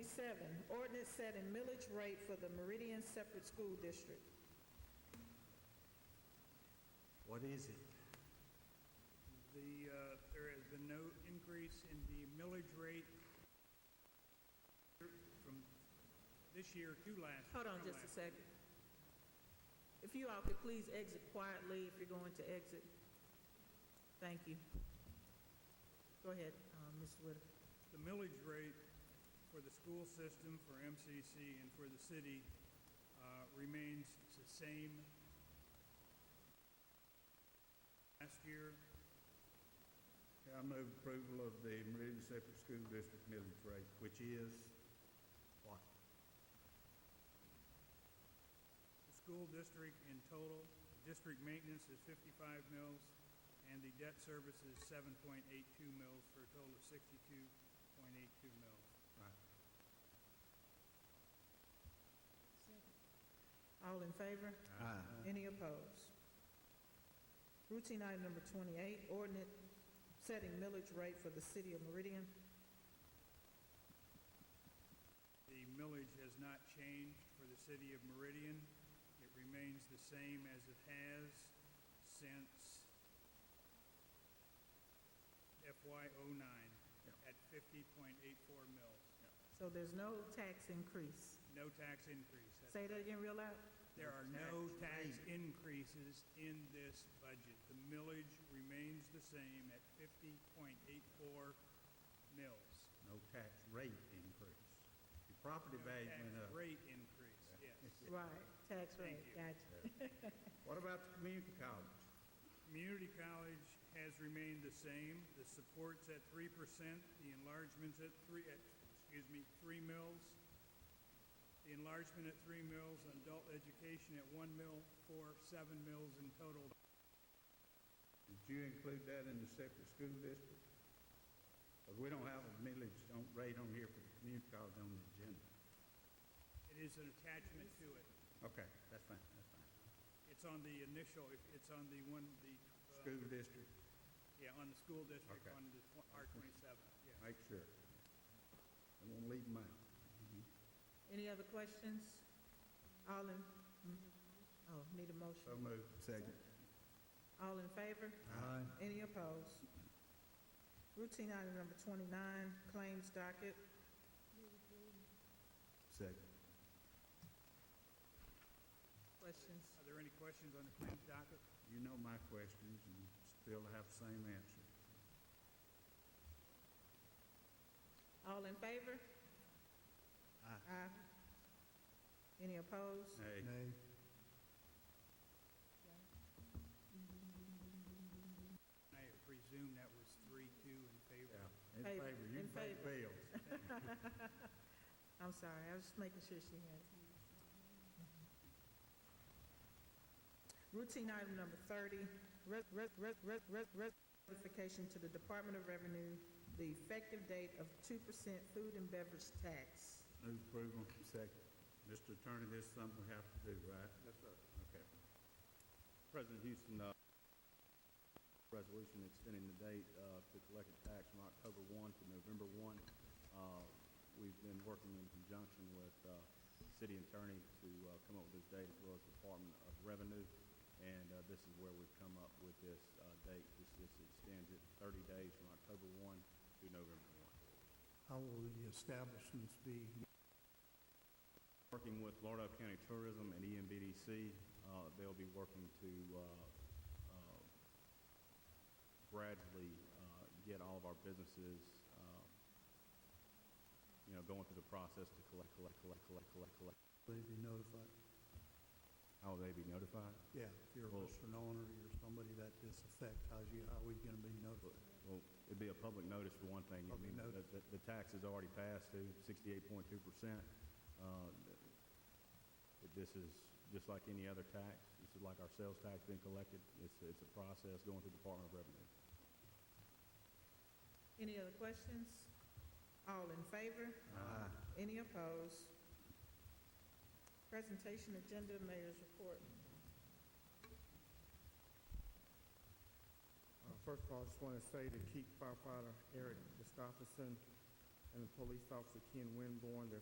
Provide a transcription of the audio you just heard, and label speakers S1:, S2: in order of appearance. S1: 27, ordinance setting millage rate for the Meridian Separate School District.
S2: What is it?
S3: The, uh, there has been no increase in the millage rate from this year to last.
S1: Hold on
S3: from
S1: just a
S3: last.
S1: second. If you all could please exit quietly if you're going to exit. Thank you. Go ahead, um, Mr. Whitaker.
S3: The millage rate for the school system, for MCC, and for the city uh, remains the same last year.
S4: I move approval of the Meridian Separate School District millage rate.
S2: Which is what?
S3: The school district in total, district maintenance is 55 mills, and the debt service is 7.82 mills for a total of 62.82 mills.
S2: Right.
S1: All in favor?
S2: Aye.
S1: Any opposed? Routine item number 28, ordinance setting millage rate for the city of Meridian.
S3: The millage has not changed for the city of Meridian. It remains the same as it has since FY '09 at 50.84 mills.
S1: So there's no tax increase.
S3: No tax increase. That's-
S1: Say that again real loud.
S3: There are no tax increases in this budget. The millage remains the same at 50.84 mills.
S2: No tax rate increase. Your property
S3: No
S2: value
S3: tax
S2: went up.
S3: Rate increase, yes.
S1: Right, tax rate,
S3: you.
S1: gotcha.
S2: What about the community college?
S3: Community college has remained the same. The support's at three percent, the enlargement's at three, at, excuse me, three mills. The enlargement at three mills, and adult education at one mill, for seven mills in total.
S4: Did you include that in the separate school district? But we don't have a millage on, rate on here for the community college on the agenda.
S3: It is an attachment to it.
S4: Okay, that's fine, that's fine.
S3: It's on the initial, if- it's on the one, the, uh,
S4: School district,
S3: yeah, on the school district,
S4: Okay.
S3: on the R twenty-seven, yeah.
S4: make sure. I won't leave them out.
S1: Any other questions? All in, mhm. oh, need a motion.
S4: So moved. Second.
S1: All in favor?
S2: Aye.
S1: Any opposed? Routine item number 29, claims docket.
S2: Second.
S1: Questions?
S3: Are there any questions on the claims docket?
S4: You know my questions and still have the same answer.
S1: All in favor?
S2: Aye.
S1: Aye. Any opposed?
S4: Hey,
S2: Nay.
S3: I presume that was three-two in favor.
S4: yeah, in
S1: Favor,
S4: favor, you
S1: in
S4: can pay the bills.
S1: I'm sorry, I was just making sure she had it. Mm-hmm. Routine item number 30, re- re- re- re- re- re- notification to the Department of Revenue, the effective date of 2% food and beverage tax.
S4: Move approval. Second. Mr. Attorney, this is something we have to do, right? Yes, sir. Okay.
S5: President Houston, uh, resolution extending the date, uh, to collect a tax from October one to November one. Uh, we've been working in conjunction with, uh, city attorney to, uh, come up with this date as well as Department of Revenue. And, uh, this is where we've come up with this, uh, date. This, this extends it thirty days from October one to November one.
S6: How will the establishments be?
S5: Working with Lauderdale County Tourism and EMBDC, uh, they'll be working to uh, uh, gradually uh, get all of our businesses, uh, you know, going through the process to collect, collect, collect, collect, collect, collect.
S6: Will they be notified?
S5: How will they be notified?
S6: Yeah, if you're a
S5: Well-
S6: restaurant owner, you're somebody that this affects, how's you, how are we gonna be notified?
S5: Well, it'd be a public notice for one thing. I
S6: Public
S5: mean, the,
S6: notice.
S5: the- the tax is already passed to sixty-eight point two percent. Uh, This is just like any other tax. This is like our sales tax being collected. It's, it's a process going through Department of Revenue.
S1: Any other questions? All in favor? Aye.
S7: Uh,
S2: Ah.
S1: Any opposed? Presentation agenda, mayor's report.
S7: Uh, First of all, I just want to say to keep firefighter Eric Gustafson and Police Officer Ken Winborn, their